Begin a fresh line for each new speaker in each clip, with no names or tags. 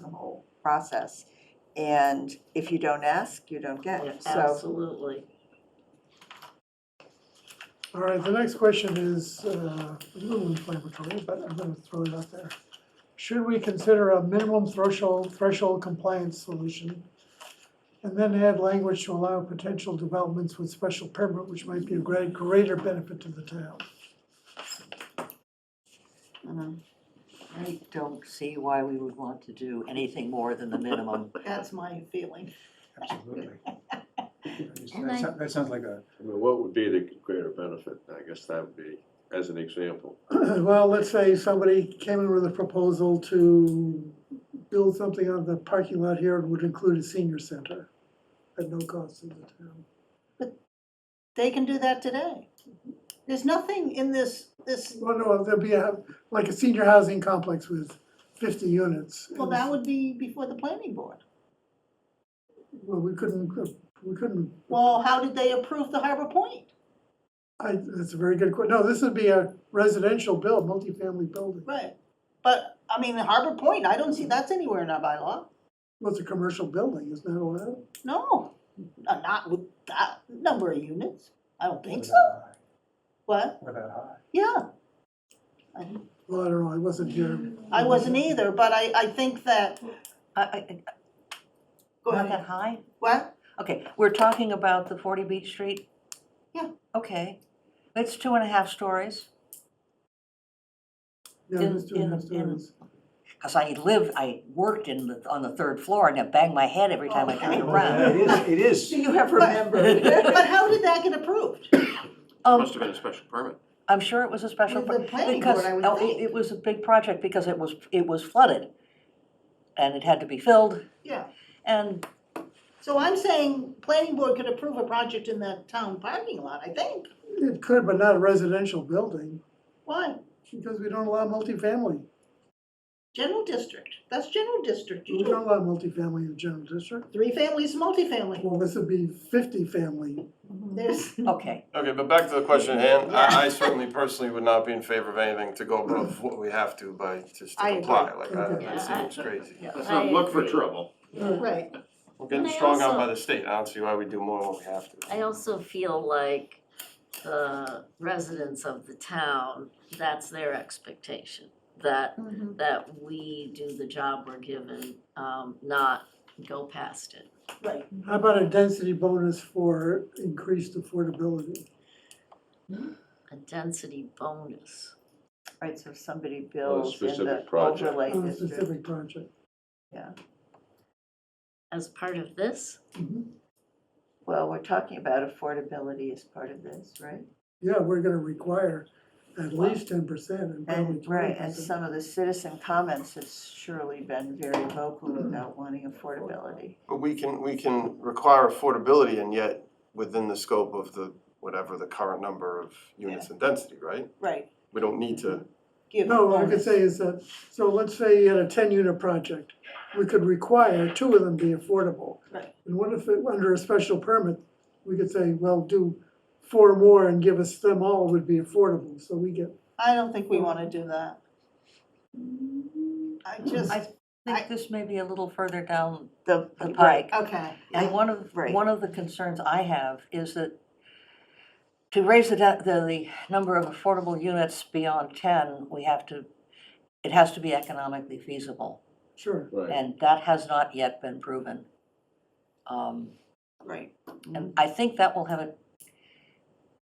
whole process. And if you don't ask, you don't
Yeah,
get, so,
Absolutely.
All right, the next question is uh, a little inflammatory, but I'm gonna throw it out there. Should we consider a minimum threshold, threshold compliance solution? And then add language to allow potential developments with special permit, which might be a great, greater benefit to the town.
mhm.
I don't see why we would want to do anything more than the minimum.
That's my feeling.
Absolutely.
And I-
That sou- that sounds like a,
I mean, what would be the greater benefit? I guess that would be, as an example.
Well, let's say somebody came in with a proposal to build something on the parking lot here and would include a senior center at no cost to the town.
They can do that today. There's nothing in this, this,
Well, no, there'd be a, like a senior housing complex with fifty units.
well, that would be before the planning board.
Well, we couldn't, we couldn't,
Well, how did they approve the Harbor Point?
I, that's a very good que, no, this would be a residential build, multifamily building.
Right. But, I mean, the Harbor Point, I don't see that's anywhere in our bylaw.
Well, it's a commercial building, isn't that allowed?
No, No, not with that number of units. I don't think so.
without high,
What?
without high.
Yeah. I-
Well, I don't know, I wasn't here.
I wasn't either, but I, I think that,
I, I, I-
go
not
ahead.
that high?
What?
Okay, we're talking about the forty Beach Street?
Yeah.
Okay, it's two and a half stories,
Yeah, it was two and a half
In- in- in-
stories.
because I lived, I worked in the, on the third floor and I banged my head every time I turned
Okay.
around.
Well, It is, it is.
You have remembered.
But how did that get approved?
Um,
Must have been a special permit.
I'm sure it was a special.
With the
pro-
planning
because-
board, I would
oh, it-
think.
It was a big project because it was, it was flooded and it had to be filled
Yeah.
and,
So I'm saying planning board could approve a project in the town parking lot, I think.
It could, but not a residential building,
Why?
because we don't allow multifamily.
General district, that's general district.
We don't allow multifamily in the general district.
Three families, multifamily.
Well, this would be fifty family.
There's,
okay.
Okay, but back to the question at hand, I, I certainly personally would not be in favor of anything to go above what we have to by, just
I
to
agree.
comply, like, that,
Okay.
that seems crazy.
Let's
I
not look for
agree.
trouble.
right.
We're getting
And I
strong
also-
on by the state, I don't see why we do more than what we have to.
I also feel like the residents of the town, that's their expectation. That, that we do the job we're given, um, not go past it.
Right.
How about a density bonus for increased affordability?
A density bonus.
Right, so if somebody builds in the
specific project.
overlay
On a
district,
specific project.
As part of this,
Mm-hmm.
well, we're talking about affordability as part of this, right?
Yeah, we're gonna require at least ten percent and probably
And, right,
twenty
and
percent.
some of the citizen comments have surely been very vocal about wanting affordability.
But we can, we can require affordability and yet within the scope of the, whatever the current number of units and density, right?
Right.
We don't need to,
Give
No, what I could
bonus.
say is that, so let's say you had a ten unit project, we could require two of them be affordable.
Right.
And what if, it- under a special permit, we could say, well, do four more and give us them all would be affordable, so we get
I don't think we wanna do that. I just,
I
I-
think this may be a little further down
The,
the
right,
pike.
okay.
And one of,
Right.
one of the concerns I have is that to raise the, da- the, the number of affordable units beyond ten, we have to, it has to be economically feasible.
Sure,
Right.
And that has not yet been proven. Um,
Right.
and I think that will have a,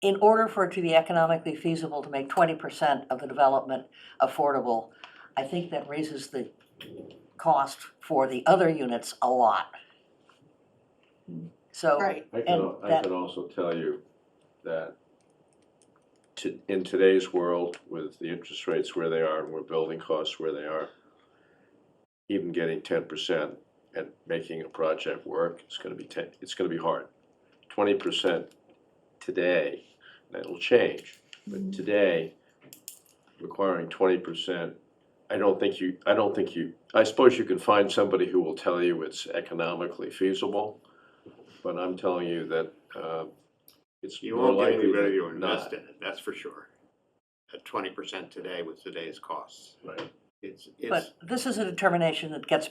in order for it to be economically feasible to make twenty percent of the development affordable, I think that raises the cost for the other units a lot. So.
Right,
I can,
and
al- I
that-
can also tell you that to, in today's world, with the interest rates where they are and where building costs where they are, even getting ten percent and making a project work, it's gonna be ten, it's gonna be hard. Twenty percent today, that'll change, but today, requiring twenty percent, I don't think you, I don't think you, I suppose you can find somebody who will tell you it's economically feasible, but I'm telling you that, uh, it's
You
more
won't get
likely
anybody to
than
invest
not.
in it, that's for sure. At twenty percent today with today's costs,
Right.
it's, it's.
But this is a determination that gets